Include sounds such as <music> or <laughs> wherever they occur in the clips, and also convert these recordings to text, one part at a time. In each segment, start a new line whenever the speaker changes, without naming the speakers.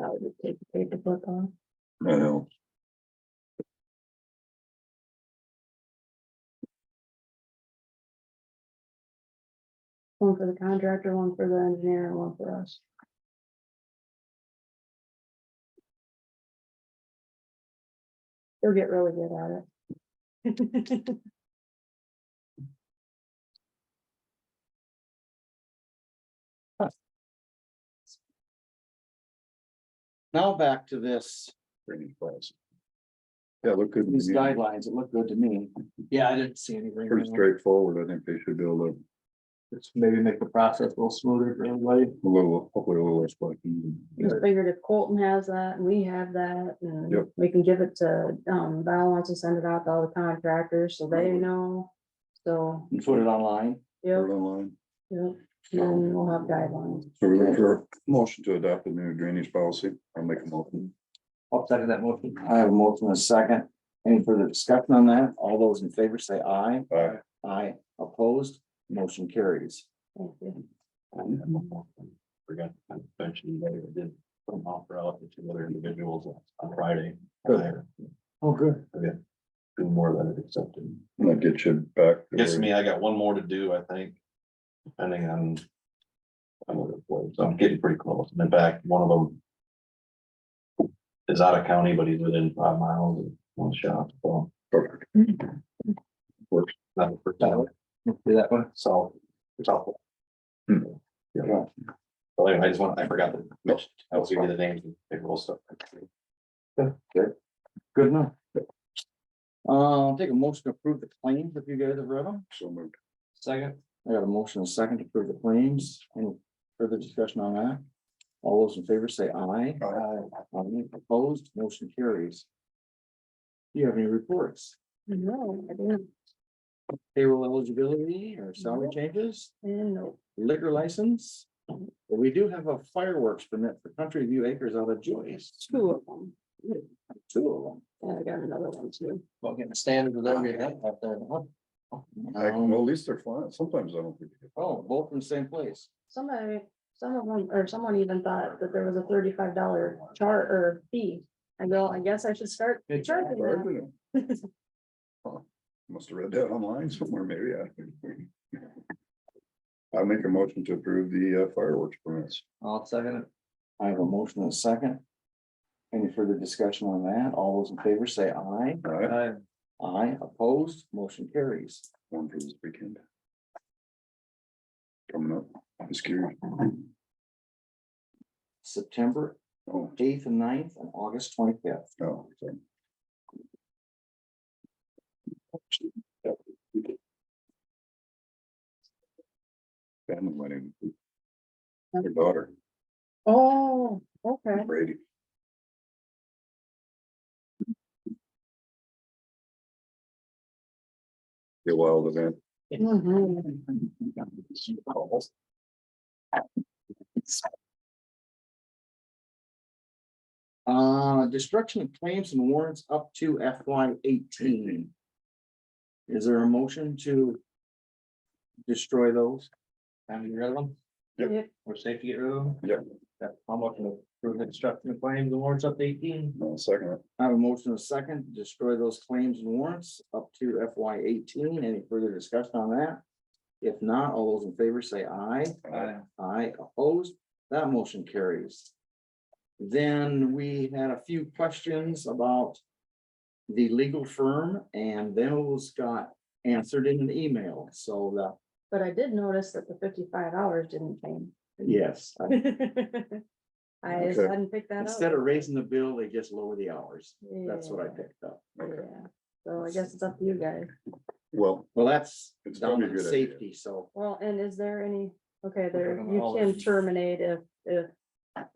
I would just take the paper book off.
I know.
One for the contractor, one for the engineer, and one for us. They'll get really good at it.
Now back to this,
training class. Yeah, look good.
these guidelines, it looked good to me. Yeah, I didn't see anything.
Pretty straightforward. I think they should be able to,
Just Maybe make the process a little smoother for everybody.
a little, hopefully a little less fucking.
Just figured if Colton has that, and we have that, and
Yep.
we can give it to, um, Val wants to send it out to all the contractors, so they know. So,
And put it online.
yep,
Online.
yep, then we'll have guidelines.
So we're looking for a motion to adopt the new drainage policy. I'll make a motion.
I'll second that motion. I have a motion and a second. Any further discussion on that? All those in favor say aye.
Aye.
Aye. Opposed, motion carries.
Thank you.
Forgot to mention later, did an offer out to two other individuals on Friday.
Good.
Hire.
Oh, good.
Two more that have accepted.
And that gets you back. to
Yes,
where-
me, I got one more to do, I think. Depending on. I'm looking for, so I'm getting pretty close. And In fact, one of them. Is out of county, but he's within five miles of one shop, so.
Perfect.
not the first time.
Do that one.
So. It's awful.
Hmm.
Yeah. So anyway, I just want, I forgot to mention, I was giving you the names and payroll stuff.
Good enough. Uh, I'll take a motion to approve the claims if you guys have read them.
So moved.
Second. I got a motion and a second to approve the claims. Any further discussion on that? All those in favor say aye.
Aye.
Aye. Opposed, motion carries. Do you have any reports?
No, I didn't,
Payroll eligibility or salary changes,
I didn't know.
liquor license? Well, We do have a fireworks permit for Country View Acres out of Joyce,
two of them,
two of them.
and I got another one too.
Well, getting standard with every head out there. Um,
I- Well, at least they're fine. Sometimes I don't think. they get-
Oh, both from the same place.
Somebody, some of them, or someone even thought that there was a thirty-five dollar char or fee. I go, I guess I should start
It's
charging
Or I
that.
didn't.
<laughs>
Huh. Must have read that online somewhere, maybe. <laughs> I- I make a motion to approve the uh, fireworks permits.
I'll second it. I have a motion and a second. Any further discussion on that? All those in favor say aye.
All right,
Aye, opposed, motion carries.
one for this weekend. Coming up, I'm scared.
September
Oh,
eighth and 9th and August twenty-fifth.
no. so. Family wedding. Their daughter,
Oh, okay.
Brady. Be A wild event.
Mm-hmm.
Mhm.
Uh, destruction of claims and warrants up to FY eighteen. Is there a motion to destroy those?
Time to get rid of them,
Yep.
Yep.
we're safe to get rid of them.
Yep.
That, I'm looking to prove instruction of claims, the warrants up to eighteen.
No, second,
I have a motion and a second, to destroy those claims and warrants up to FY eighteen. Any further discussion on that? If not, all those in favor say aye.
Uh,
Aye.
Aye, opposed, that motion carries. Then we had a few questions about the legal firm and those got answered in an email, so that,
But I did notice that the fifty-five hours didn't change. <laughs>
yes. I-
I just
Okay.
hadn't picked that
Instead
up.
of raising the bill, they just lower the hours. That's what I
Yeah.
picked up.
okay,
Yeah, so I guess it's up to you guys.
well,
Well, that's
It's
down
probably a
to
good idea.
safety, so.
Well, and is there any, okay, there,
talking
you
all
can
of-
terminate if, if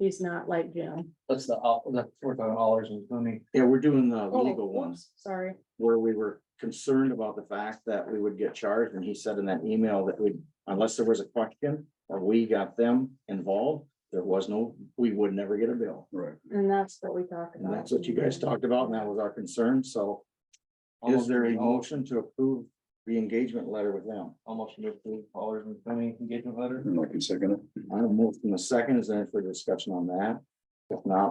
he's not like Jim.
That's the, all- that's worth on dollars and money.
Yeah, we're doing the
Oh,
legal ones
oops, Sorry,
where we were concerned about the fact that we would get charged, and he said in that email that we, unless there was a question or we got them involved, there was no, we would never get a bill.
right,
and that's what we talked
And
about.
that's what you guys talked about, and that was our concern, so is there a motion to approve the engagement letter with them?
Almost fifty dollars and twenty engagement letter.
and I can second it.
I have a motion in a second, is there any further discussion on that? If not,